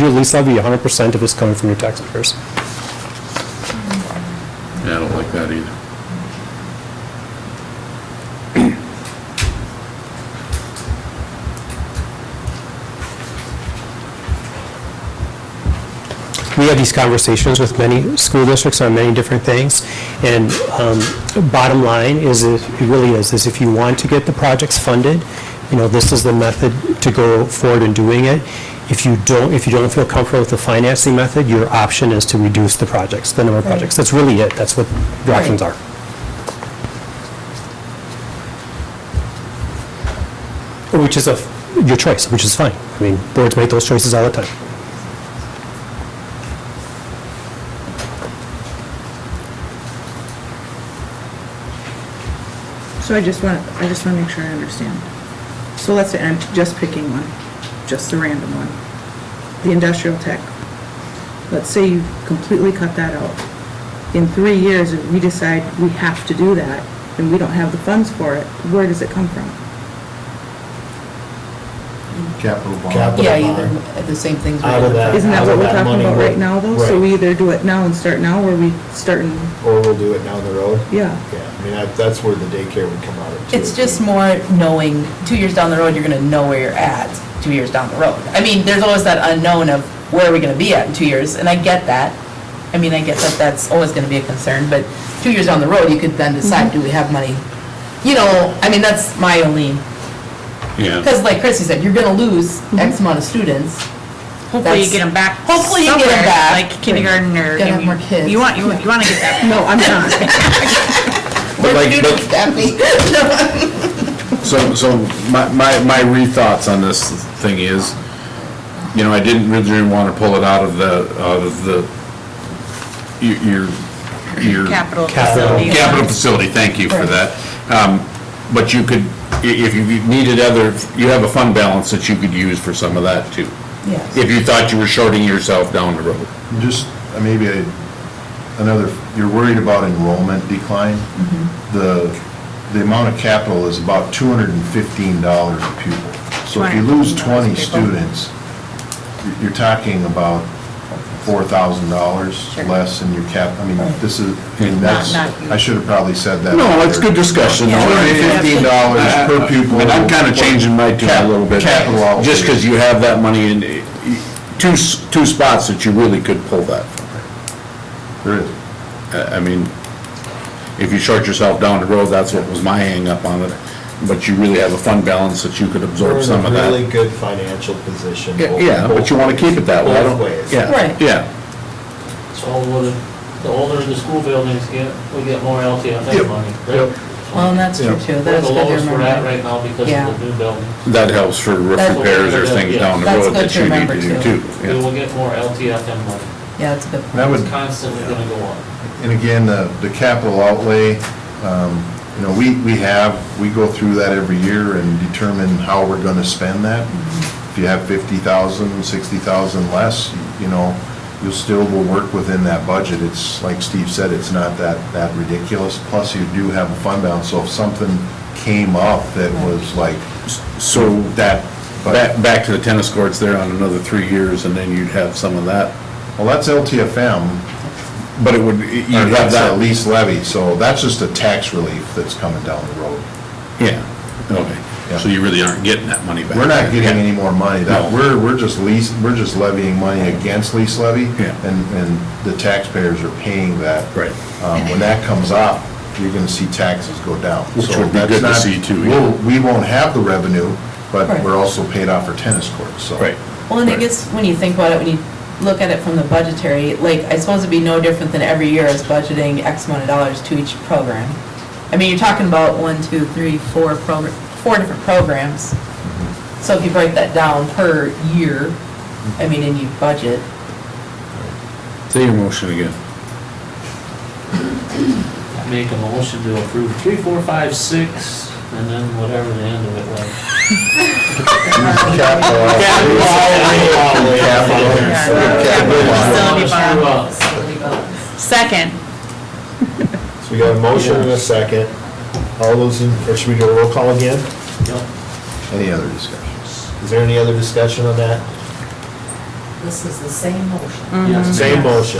your lease levy, 100% of it's coming from your taxpayers. Yeah, I don't like that either. we have these conversations with many school districts on many different things, and um, bottom line is, it it really is, is if you want to get the projects funded, you know, this is the method to go forward in doing it. If you don't, if you don't feel comfortable with the financing method, your option is to reduce the projects, the number of projects. That's really it, that's what your options are. Which is a, your choice, which is fine. I mean, boards make those choices all the time. So I just want, I just want to make sure I understand. So let's say I'm just picking one, just a random one, the industrial tech. Let's say you completely cut that out. In three years, if we decide we have to do that, and we don't have the funds for it, where does it come from? Capital bond. Capital Yeah, you, bond. the same things. Out of that. Isn't that what we're Out of Uh, that talking about money, right now, though? So right. we either do it now and start now, or we start and, Or we'll do it down the road? yeah. Yeah, I mean, that- that's where the daycare would come out of too. It's just more knowing, two years down the road, you're gonna know where you're at, two years down the road. I mean, there's always that unknown of where are we gonna be at in two years, and I get that. I mean, I get that that's always gonna be a concern, but two years down the road, you could then decide, Mm-hmm. do we have money? You know, I mean, that's my only, Yeah. because like Chrissy said, you're gonna lose Mm-hmm. X amount of students. Hopefully you That's- get them back. Hopefully you get 'em somewhere, back. Like kindergarten or. Gotta have more kids. You want, you want you want to get that. No, I'm not. But like, but- Daphne. So, so my, my my rethoughts on this thing is, you know, I didn't originally want to pull it out of the, out of the, your- your, your. Capital Capital. facility. Capital facility, thank you for that. Um, But you could, i- if you needed other, you have a fund balance that you could use for some of that too. Yes. If you thought you were shorting yourself down the road. Just, uh, maybe a- another, you're worried about enrollment decline. Mm-hmm. The, the amount of capital is about two hundred and fifteen dollars a pupil. So if you lose $215 a twenty pupil. students, you're- you're talking about four thousand dollars Sure. less in your cap, I mean, this is, I mean, that's, not- I should have probably said that. No, it's good discussion. Two hundred and fifteen dollars per pupil. Uh, And I'm kind of changing my tune a little bit. Capital outlay. Just because you have that money in, eh, two, s- two spots that you really could pull that from. There is. I I mean, if you short yourself down the road, that's what was my hang up on it. But you really have a fund balance that you could We're absorb in some a of really that. good financial position. Yeah, both- Yeah, but you want to keep it that way. I Both don't- ways. Yeah, Right. Yeah. So the, the older the school buildings get, we get more LTFM money, right? Well, and that's true Yeah. too, We're that's the good to lowest we're at remember. right now because Yeah. of the new building. That helps for roof That's- repairs or things down the That's road that good to you need remember, to do too. too. We Yeah. will get more LTFM money. Yeah, that's a good point. That would, It's constantly gonna go up. And again, the, the capital outlay, um, you know, we, we have, we go through that every year and determine how we're gonna spend that. If you have fifty thousand, sixty thousand less, you know, you still will work within that budget. It's, like Steve said, it's not that, that ridiculous. Plus, you do have a fund balance, so if something came up that was like, So that, back, back to the tennis courts there on another three years and then you'd have some of that. well, that's LTFM, But it would, or you'd have that's a that. lease levy, so that's just a tax relief that's coming down the road. Yeah, okay. Yeah. So you really aren't getting that money back. We're not getting Yeah. any more money, that, No. we're, we're just lease, we're just levying money against lease levy. Yeah. And, and the taxpayers are paying that. Right. Um, when that comes up, you're gonna see taxes go down. Which So would be that's good to not- see too, yeah. We'll, we won't have the revenue, but Right. we're also paid off our tennis courts, so. Right. Well, and I Right. guess when you think about it, when you look at it from the budgetary, like, I suppose it'd be no different than every year is budgeting X amount of dollars to each program. I mean, you're talking about one, two, three, four progr- four different programs. So if you break that down per year, I mean, and you budget, Say your motion again. I Make a motion to approve three, four, five, six, and then whatever the end of it was. Capital outlay. Capital. Capital. Yeah. Facility bond. Screw up. Second, So we got a motion and a second. All those, in or should we do a roll call again? Yep. Any other discussion? Is there any other discussion on that? This is the same motion. Yes, Mm-hmm. Same motion.